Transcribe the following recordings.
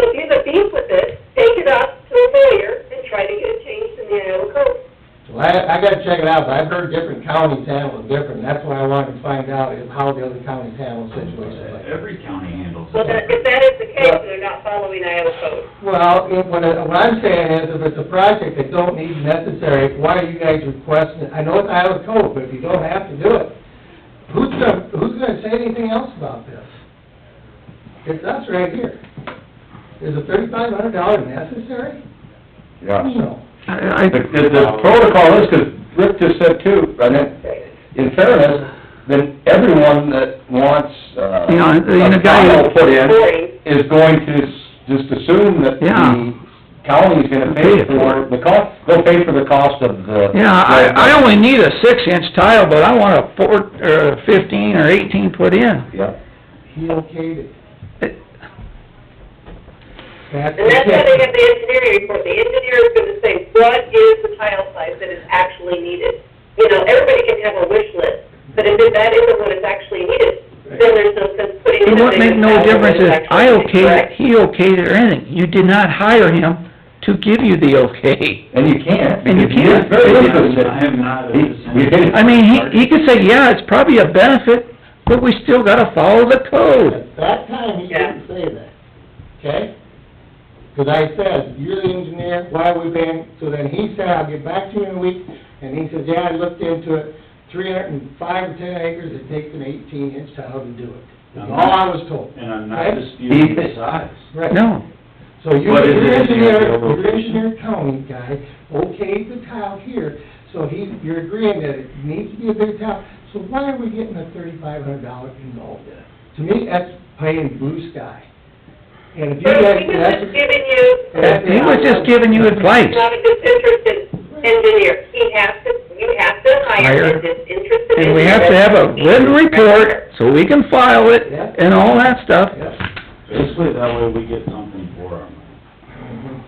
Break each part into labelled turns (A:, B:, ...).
A: loop with it, take it up to the mayor and try to get it changed in the Iowa code.
B: Well, I, I gotta check it out, but I've heard different counties handle it different, that's what I wanted to find out, is how the other counties handle situations like that.
C: Every county handles
A: Well, then,
C: it.
A: if that is the case, they're not following Iowa code.
B: Well, if, what I- what I'm saying is, if it's a project that don't need necessary, why are you guys requesting, it? I know it's Iowa code, but if you don't have to do it, who's gonna, who's gonna say anything else about this? It's us right here. Is a thirty-five hundred dollar necessary?
D: Hmm.
E: Yeah.
B: No.
D: I, I,
E: The, the the protocol is, 'cause Rick just said too, and it, in fairness, then everyone that wants, uh,
D: Yeah, and the
E: a
D: guy-
E: condo put in
A: Right.
E: is going to s- just assume that
D: Yeah.
E: the county's gonna pay for the cost, they'll pay for the cost of the...
D: yeah, I, I only need a six inch tile, but I want a four, or a uh, fifteen or eighteen put in.
E: Yeah.
B: He okayed it.
D: It-
B: That's
A: And that's why they have the engineering report, the engineer is gonna say, what is the tile size that is actually needed? You know, everybody can have a wish list, but if that isn't what is actually needed, then there's no sense putting in a
D: It wouldn't make
A: big
D: no
A: tile
D: difference
A: that is
D: if I
A: actually
D: okayed it,
A: correct.
D: he okayed it or anything, you did not hire him to give you the okay.
E: And you can't.
D: And you
E: because he
D: can't.
E: is Very
D: I
E: different than-
C: I am not a
E: He-
C: descendant.
E: you did-
D: I mean, he, he could say, yeah, it's probably a benefit, but we still gotta follow the code.
B: At that time, he didn't say that, okay? Because I said, you're the engineer, why are we paying? So then he said, I'll get back to you in a week, and he says, yeah, I looked into it, three hundred and five or ten acres, it takes an eighteen inch tile to do it. That's all I was told.
C: And I'm
B: Okay?
C: not disputing the size.
B: Right.
D: No,
B: So you,
C: But is
B: your
C: it in the
B: engineer,
C: overall
B: your
C: vision?
B: engineer county guy okayed the tile here, so he, you're agreeing that it needs to be a big tile, so why are we getting a thirty-five hundred dollar involved in it? To me, that's playing blue sky. And if you
A: But
B: guys,
A: he was
B: that's,
A: just giving you,
B: Yeah.
D: he was just giving you advice.
A: not a disinterested engineer, he has to, you have to hire
D: Hire.
A: a disinterested engineer.
D: And we have to have a written report, so we can file it, and all that stuff.
B: yeah.
C: Basically, that way we get something for our money.
B: Mhm.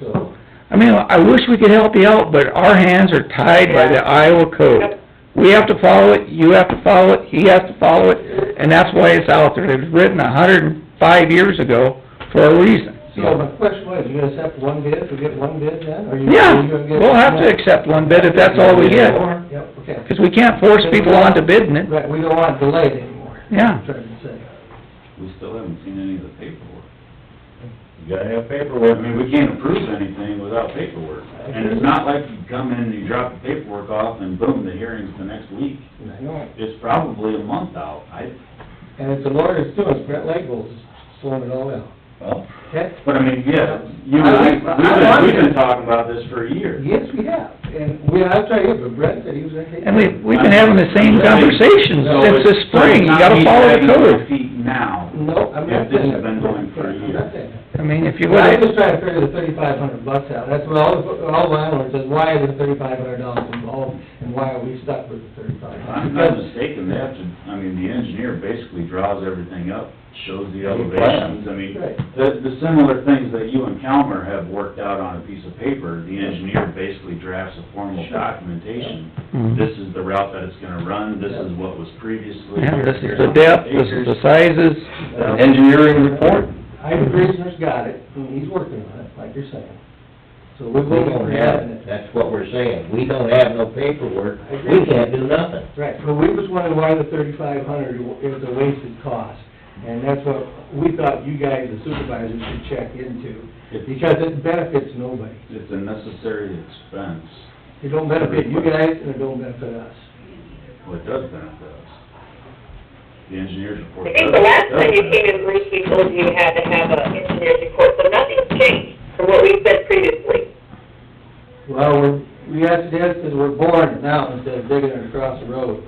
B: So,
D: I mean, I wish we could help you out, but our hands are tied by the Iowa code.
A: Yep.
D: We have to follow it, you have to follow it, he has to follow it, and that's why it's out there. It was written a hundred and five years ago for a reason.
B: so my question was, you gonna accept one bid, we get one bid then, or you?
D: Yeah,
B: you gonna get-
D: we'll have to accept one bid if that's all we get,
B: Yep, okay.
D: because we can't force people onto bidding it.
B: Right, we don't want it delayed anymore.
D: Yeah.
B: Trying to say.
C: We still haven't seen any of the paperwork.
E: You gotta have
C: I
E: paperwork.
C: mean, we can't approve anything without paperwork. And it's not like you come in, you drop the paperwork off, and boom, the hearing's the next week.
B: I know.
C: It's probably a month out. I,
B: And it's the lawyers too, it's Brett Langle's slowing it all down,
E: Well,
B: okay?
C: but I mean, yeah, you and I, we've been, we've been talking about this for a year.
B: Yes, we have, and we, I'll tell you, but Brett said he was gonna take.
D: And we, we've been having the same conversations since this spring, you gotta follow the code.
C: Feet now.
B: No, I'm not
C: If this
B: saying
C: has
B: that.
C: been going for a
B: I'm not
C: year.
B: saying that.
D: I mean, if you would,
B: I'm
D: have
B: just trying to figure the thirty-five hundred bucks out, that's what all, the- all landlords says, why is the thirty-five hundred dollars involved, and why are we stuck with the thirty-five
C: If
B: hundred?
C: I'm not mistaken, they have to, I mean, the engineer basically draws everything up, shows the elevations. I mean,
B: Right.
C: the, the similar things that you and Calmer have worked out on a piece of paper, the engineer basically drafts a formal documentation.
D: Mhm.
C: This is the route that it's gonna run, this is what was previously.
D: yeah, this is the depth, this is the sizes.
E: engineering report,
B: I, the commissioner's got it, and he's working on it, like you're saying. So we're
F: We
B: waiting for
F: don't
B: having
F: have,
B: it.
F: that's what we're saying, we don't have no paperwork, we can't do nothing.
B: Right, but we was wondering why the thirty-five hundred is a wasted cost, and that's what we thought you guys, the supervisors, should check into,
C: It-
B: because it benefits nobody.
C: It's a necessary expense,
B: It don't benefit you guys, and it don't benefit us.
C: well, it does benefit us. The engineer's report.
A: I think the
C: does-
A: last
C: does
A: time you
C: benefit
A: came in, Bruce, we told you you had to have an engineer's report, so nothing's changed from what we said previously.
B: Well, we're, we asked this because we're boring it now instead of digging it across the road.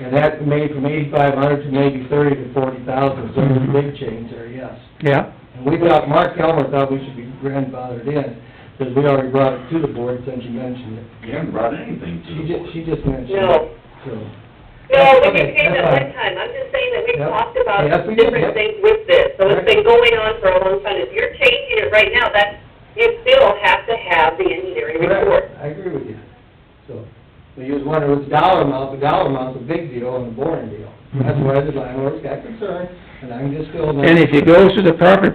B: And that made from eighty-five hundred to maybe thirty to forty thousand, so there's a big change there, yes.
D: Yeah,
B: And we thought, Mark Kelmer thought we should be grandfathered in, because we already brought it to the board since you mentioned it.
C: You haven't brought anything to
B: She
C: the board.
B: just, she just mentioned
A: No.
B: it, so.
A: No, we
B: Okay,
A: didn't say that one
B: that's fine.
A: time, I'm just saying that we
B: Yep.
A: talked about
B: Yes, we did, yep.
A: different things with this, so
B: Right.
A: it's been going on for a long time. If you're changing it right now, that's, you still have to have the engineering report.
B: Correct, I agree with you. So, but you was wondering, what's the dollar amount, the dollar amount's a big deal and a boring deal. That's why the landlords got concerned, and I'm just still.
D: and if you go through the proper